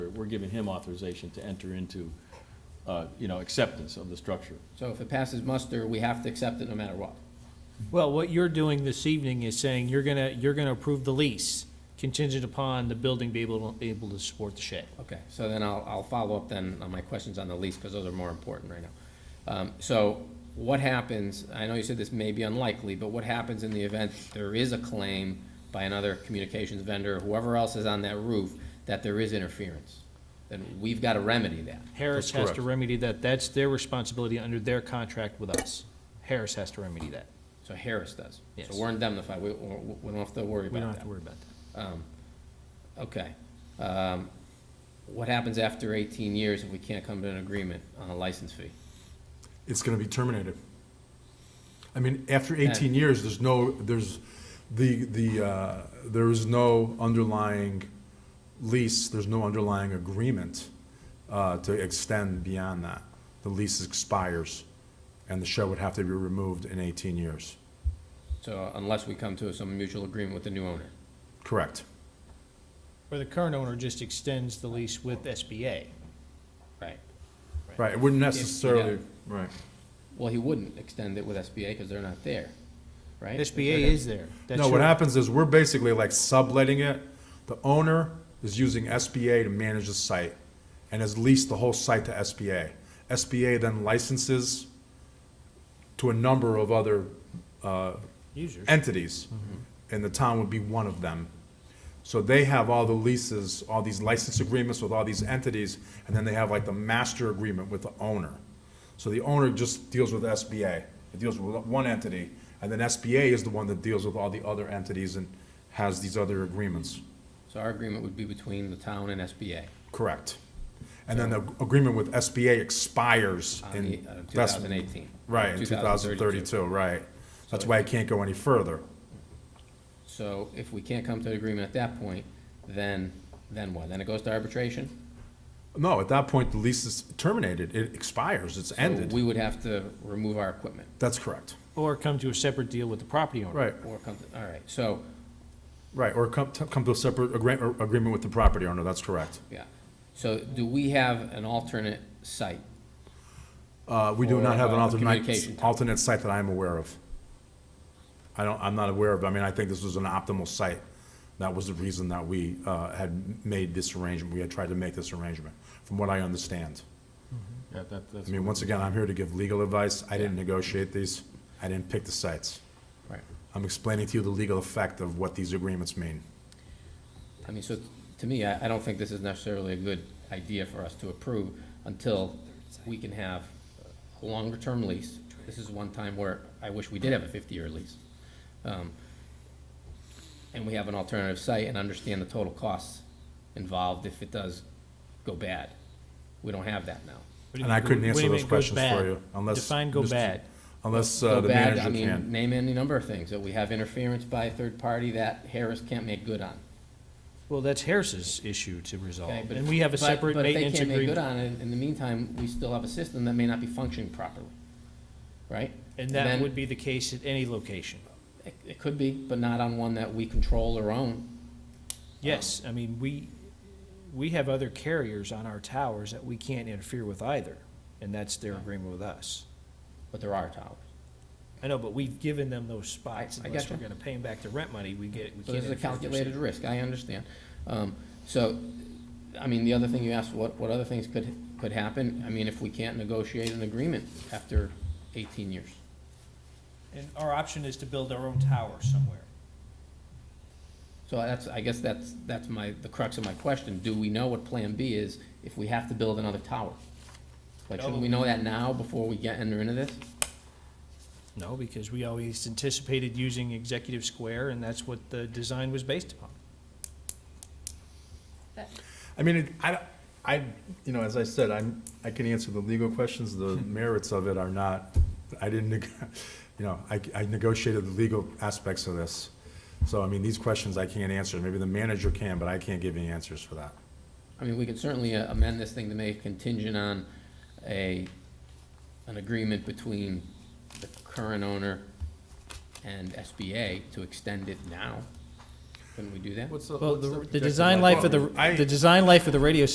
we're giving him authorization to enter into, uh, you know, acceptance of the structure. So if it passes muster, we have to accept it no matter what. Well, what you're doing this evening is saying you're gonna, you're gonna approve the lease contingent upon the building be able, able to support the shed. Okay, so then I'll, I'll follow up then on my questions on the lease, because those are more important right now. Um, so what happens, I know you said this may be unlikely, but what happens in the event there is a claim by another communications vendor, whoever else is on that roof, that there is interference? Then we've got to remedy that. Harris That's has to correct. remedy that. That's their responsibility under their contract with us. Harris has to remedy that. So Harris does. Yes. So we're indemnified, we, we we don't have to worry about that. We don't have to worry about that. Okay. Um, What happens after 18 years if we can't come to an agreement on a license fee? it's gonna be terminated. I mean, after eighteen years, there's no, there's, the, the, uh, there is no underlying lease, there's no underlying agreement, uh, to extend beyond that. The lease expires, and the shed would have to be removed in eighteen years. So unless we come to some mutual agreement with the new owner. Correct. Or the current owner just extends the lease with SBA. Right. Right, it wouldn't necessarily, right. Well, he wouldn't extend it with SBA because they're not there, right? SBA is there. That's No, what your- happens is we're basically like subletting it. The owner is using SBA to manage the site and has leased the whole site to SBA. SBA then licenses to a number of other uh, Users. entities, and the town would be one of them. So they have all the leases, all these license agreements with all these entities, and then they have like the master agreement with the owner. So the owner just deals with SBA, it deals with one entity, and then SBA is the one that deals with all the other entities and has these other agreements. So our agreement would be between the town and SBA Correct. And then the agreement with SBA expires on the, in. uh, that's- 2018. Right, in two thousand thirty-two, right. That's why it can't go any further. So if we can't come to an agreement at that point, then, then what? Then it goes to arbitration? No, at that point, the lease is terminated. It expires. It's So We ended. would have to remove our equipment That's correct. Or come to a separate deal with the property owner. Right, or come, to- all right, so. right. Or come, to- come to a separate agree- or agreement with the property owner. That's correct. Yeah, so do we have an alternate site? Uh, we do Or, not have an uh, alternate, communication. alternate site that I'm aware of. I don't, I'm not aware of. I mean, I think this was an optimal site. That was the reason that we, uh, had made this arrangement. We had tried to make this arrangement, from what I understand. Yeah, that, that's. I mean, once again, I'm here to give legal advice. I didn't negotiate these. I didn't pick the sites. Right. I'm explaining to you the legal effect of what these agreements mean. I mean, so to me, I, I don't think this is necessarily a good idea for us to approve until we can have a longer-term lease. This is one time where I wish we did have a fifty-year lease. Um, And we have an alternative site and understand the total costs involved if it does go bad. We don't have that now. What do you And I mean go- couldn't what do answer you those mean goes questions bad? for you unless. Define go Mr. bad. Unless Go uh, the bad, I manager mean, can. name any number of things, that we have interference by a third party that Harris can't make good on. Well, that's Harris's issue to resolve. Okay, but Oh, And if- we have a but- separate maintenance But if they can't make good agreement. on it, in the meantime, we still have a system that may not be functioning properly, right? And that then would be the case at any location. It, it could be, but not on one that we control or own. Yes, I mean, we, we have other carriers on our towers that we can't interfere with either, and that's their agreement with us. But there are towers. I know, but we've given them those spots, I- I unless gotcha. we're gonna pay them back the rent money, we get, we So there's a can't. interfere with their calculated risk, I understand. Um, so, I mean, the other thing you asked, what, what other things could, could happen? I mean, if we can't negotiate an agreement after eighteen years. And our option is to build our own tower somewhere. So that's, I guess that's, that's my, the crux of my question. Do we know what Plan B is if we have to build another tower? Like, shouldn't we know that now before we get, enter into this? No, because we always anticipated using Executive Square, and that's what the design was based upon. I mean, it- I, I, you know, as I said, I'm, I can answer the legal questions. The Hmm. merits of it are not, I didn't, neg- you know, I, I negotiated the legal aspects of this. So I mean, these questions I can't answer. Maybe the manager can, but I can't give any answers for that. I mean, we could certainly uh, amend this thing to make it contingent on a, an agreement between the current owner and SBA to extend it now. Couldn't we do that? Well, the, the design life of the, the design life of the radio